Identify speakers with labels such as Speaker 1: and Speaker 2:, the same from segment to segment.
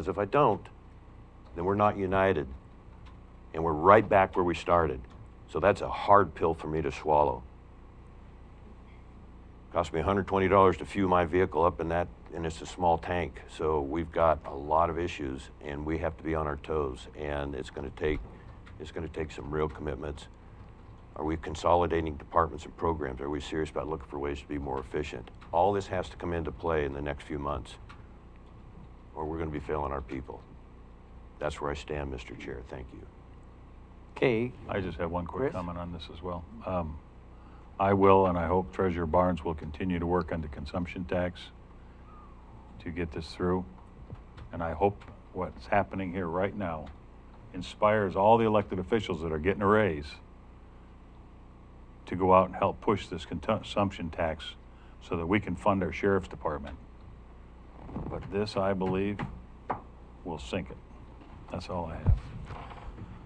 Speaker 1: Because if I don't, then we're not united. And we're right back where we started. So that's a hard pill for me to swallow. Cost me $120 to fuel my vehicle up in that, and it's a small tank. So we've got a lot of issues, and we have to be on our toes. And it's going to take, it's going to take some real commitments. Are we consolidating departments and programs? Are we serious about looking for ways to be more efficient? All this has to come into play in the next few months, or we're going to be failing our people. That's where I stand, Mr. Chair. Thank you.
Speaker 2: Okay,
Speaker 3: I just have one quick
Speaker 2: Chris?
Speaker 3: comment on this as well. Um, I will, and I hope Treasurer Barnes will continue to work on the consumption tax to get this through. And I hope what's happening here right now inspires all the elected officials that are getting a raise to go out and help push this consumption tax so that we can fund our sheriff's department. But this, I believe, will sink it. That's all I have.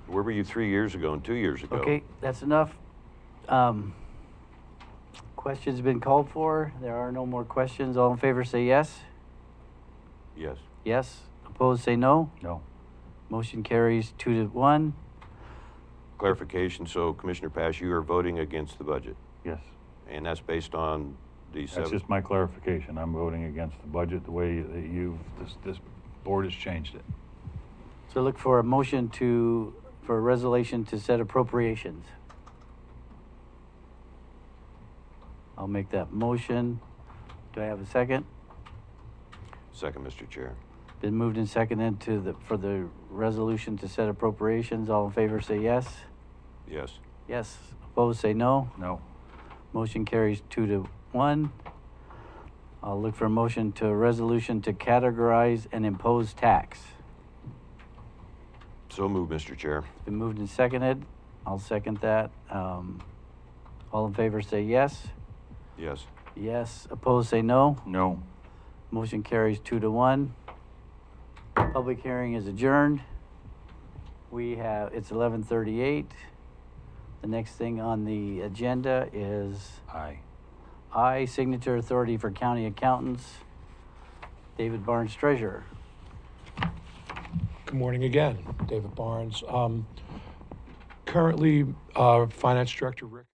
Speaker 1: Where were you three years ago and two years ago?
Speaker 2: okay, that's enough. Um, Questions been called for. There are no more questions. All in favor say yes.
Speaker 1: Yes.
Speaker 2: Yes. Opposed say no.
Speaker 3: No.
Speaker 2: Motion carries two to one.
Speaker 1: Clarification. So, Commissioner Pash, you are voting against the budget,
Speaker 3: Yes.
Speaker 1: and that's based on the
Speaker 3: That's
Speaker 1: seven.
Speaker 3: just my clarification. I'm voting against the budget the way that you've, this, this board has changed it.
Speaker 2: So look for a motion to, for a resolution to set appropriations. I'll make that motion. Do I have a second?
Speaker 1: Second, Mr. Chair.
Speaker 2: Been moved and seconded to the, for the resolution to set appropriations. All in favor say yes.
Speaker 1: Yes.
Speaker 2: Yes. Opposed say no.
Speaker 3: No,
Speaker 2: Motion carries two to one. I'll look for a motion to a resolution to categorize and impose tax.
Speaker 1: So moved, Mr. Chair.
Speaker 2: Been moved and seconded. I'll second that. Um, all in favor say yes.
Speaker 1: Yes.
Speaker 2: Yes. Opposed say no.
Speaker 3: no.
Speaker 2: Motion carries two to one. Public hearing is adjourned. We have, it's eleven thirty-eight. The next thing on the agenda is
Speaker 3: Aye.
Speaker 2: I, signature authority for county accountants, David Barnes treasurer.
Speaker 4: Good morning again, David Barnes. Um, Currently, uh, Finance Director Rick